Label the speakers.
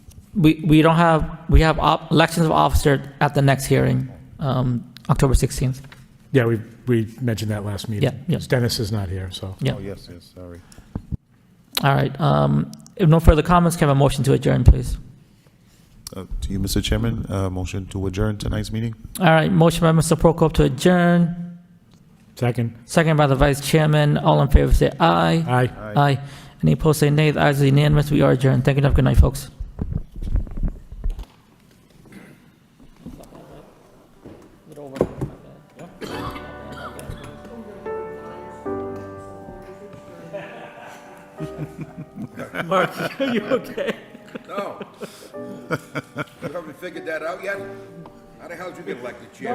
Speaker 1: we, we don't have, we have op- elections of officer at the next hearing, um, October 16th.
Speaker 2: Yeah, we, we mentioned that last meeting.
Speaker 1: Yeah, yeah.
Speaker 2: Dennis is not here, so.
Speaker 1: Yeah.
Speaker 3: Oh, yes, yes, sorry.
Speaker 1: All right, um, if no further comments, can I have a motion to adjourn, please?
Speaker 3: Uh, To you, Mr. Chairman, uh, motion to adjourn tonight's meeting?
Speaker 1: All right, motion by Mr. Prokop to adjourn,
Speaker 2: Second,
Speaker 1: second by the vice chairman. All in favor, say aye.
Speaker 2: aye.
Speaker 1: Aye. Any opposed, say nay. The ayes are unanimous. We are adjourned. Thank you and have a good night, folks. Mark, are you okay?
Speaker 4: No. You haven't figured that out yet? How the hell did you get elected chair?